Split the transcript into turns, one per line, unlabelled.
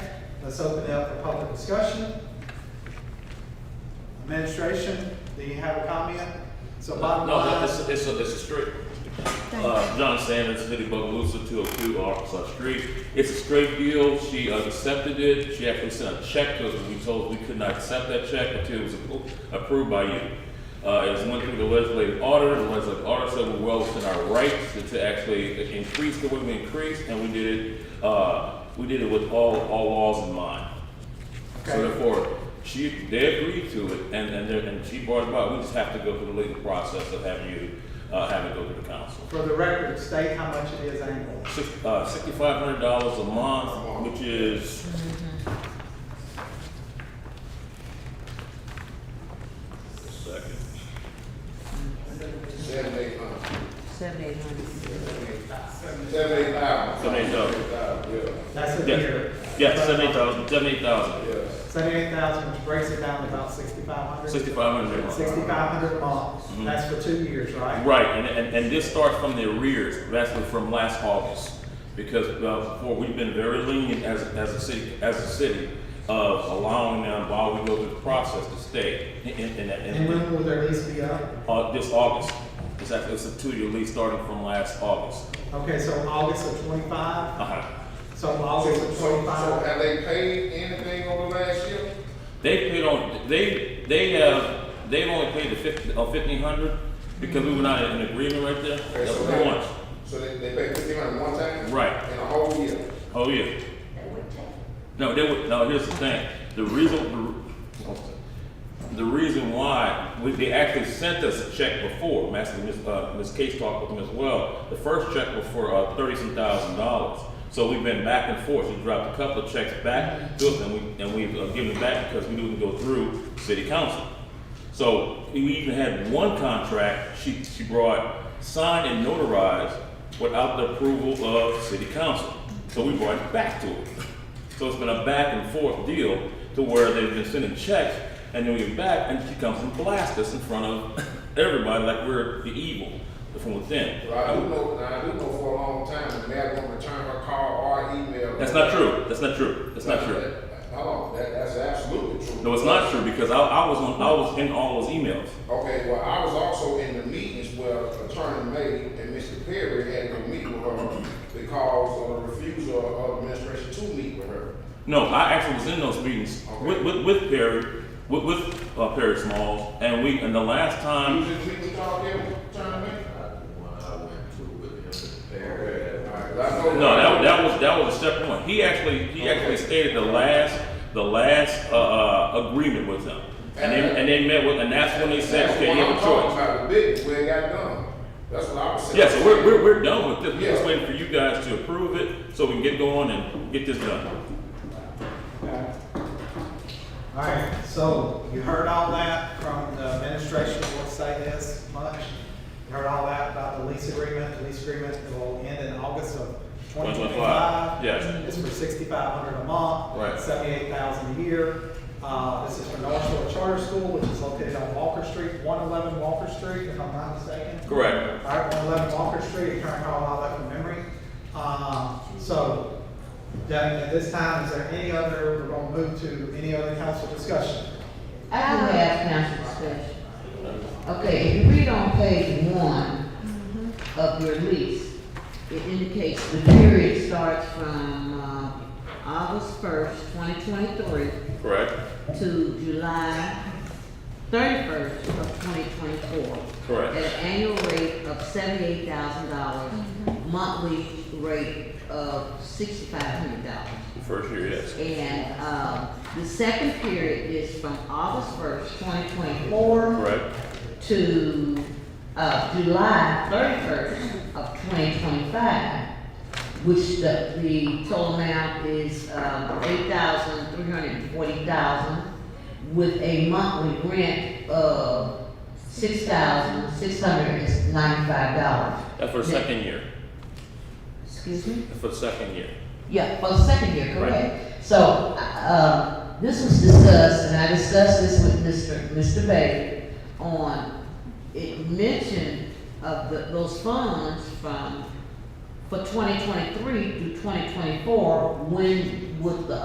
Let's open it up for public discussion. Administration, do you have a comment? So bottom
No,
line,
it's, it's, a- it's a street. Uh, John Sanders, City of Bogalusa, two oh two Arkansas Street. It's a straight deal. She uh, accepted it. She actually sent a check to us, and we told we could not accept that check until it was appro- approved by you. Uh, it was went through the legislative order. The legislative order said we're well within our rights to- to actually increase the way we increased, and we did it, uh, we did it with all, all laws in mind. So
okay,
therefore, she, they agreed to it, and, and, they're- and she brought it up, we just have to go through the legal process of having you, uh, have it go to the council.
for the record, state how much it is annually.
Six, uh, sixty-five hundred dollars a month, which is, second,
Seven, eight hundred.
Seventy-eight hundred.
Seven, eight thousand.
Seven, eight thousand.
Yeah,
That's a
Yeah.
year.
yeah, seventy-eight thousand, seventy-eight thousand,
yeah.
Seventy-eight thousand, which breaks it down to about sixty-five hundred.
sixty-five hundred a month.
Sixty-five hundred a
Mm-hmm.
month, that's for two years, right?
Right, and, and, and this starts from the arrears, actually from last August, because, uh, before, we've been very lenient as, as a city, as a city, of allowing them while we go through the process to stay in, in, in, that-
And
in,
when will their lease be up?
uh, this August. It's actually, it's a two-year lease starting from last August.
Okay, so August of twenty-five,
Uh-huh.
so August
So,
of
so
twenty-five,
have they paid anything over the last year?
They paid on, they, they have, they've only paid the fifty, uh, fifteen hundred, because we were not in agreement right there.
Okay,
That's
so
what
they-
we want.
So they, they paid fifteen hundred one time?
Right.
In a whole year?
Oh, yeah. No, they would, no, here's the thing, the reason, the reason why, we, they actually sent us a check before, Master, Ms., uh, Ms. Case talked with them as well. The first check was for, uh, thirty-some thousand dollars, so we've been back and forth, we dropped a couple of checks back to us, and we, and we've uh, given it back because we didn't go through city council. So, we even had one contract, she, she brought, signed and notarized without the approval of city council. So we brought it back to her. So it's been a back and forth deal to where they've been sending checks and then we get back and she comes and blasts us in front of everybody like we're the evil from within.
Well, I do know, now, I do know for a long time, the mayor won't return her call or email.
That's not true. That's not true. That's not true.
Hold on, that, that's absolutely true.
No, it's not true because I, I was on, I was in all those emails.
Okay, well, I was also in the meetings where Attorney May and Mr. Perry had to meet with her because of the refusal of administration to meet with her.
No, I actually was in those meetings with, with, with Perry, with, with uh, Perry Smalls, and we, and the last
You
time,
was in the meeting talking with Attorney May? Okay, all right, 'cause I know-
no, that, that was, that was a separate one. He actually, he actually stated the last, the last, uh, uh, agreement with them. And they, and they met with, and that's when they said,
That's
okay,
what
you
I'm
have a
talking
choice.
About the business, where it got done. That's what I was saying.
Yeah, so we're, we're, we're done with this. We're just
Yeah.
waiting for you guys to approve it so we can get going and get this done.
okay. All right, so you heard all that from the administration, won't say this much. You heard all that about the lease agreement, the lease agreement will end in August of twenty twenty-five.
Yes.
It's for sixty-five hundred a month.
Right.
Seventy-eight thousand a year. Uh, this is for North Shore Charter School, which is located on Walker Street, one eleven Walker Street, if I'm not mistaken.
Correct.
All right, one eleven Walker Street, if I recall all that from memory. Um, so, Devin, at this time, is there any other, we're gonna move to any other council discussion?
I do have council discussion. Okay, if you read on page one of your lease, it indicates the period starts from, uh, August first, twenty twenty-three
Correct?
to July thirty-first of twenty twenty-four. At
Correct.
an annual rate of seventy-eight thousand dollars, monthly rate of sixty-five hundred dollars.
First year, yes.
And, um, the second period is from August first, twenty twenty-four
Correct.
to, uh, July thirty-first of twenty twenty-five, which the, the total amount is, um, eight thousand, three hundred and forty thousand with a monthly rent of six thousand, six hundred and ninety-five dollars.
That's for the second year.
Excuse me?
That's for the second year.
Yeah, for the second year,
Right.
correct. So, uh, this was discussed, and I discussed this with Mr. Mr. Bailey on, it mentioned of the, those funds from, for twenty twenty-three through twenty twenty-four, when would the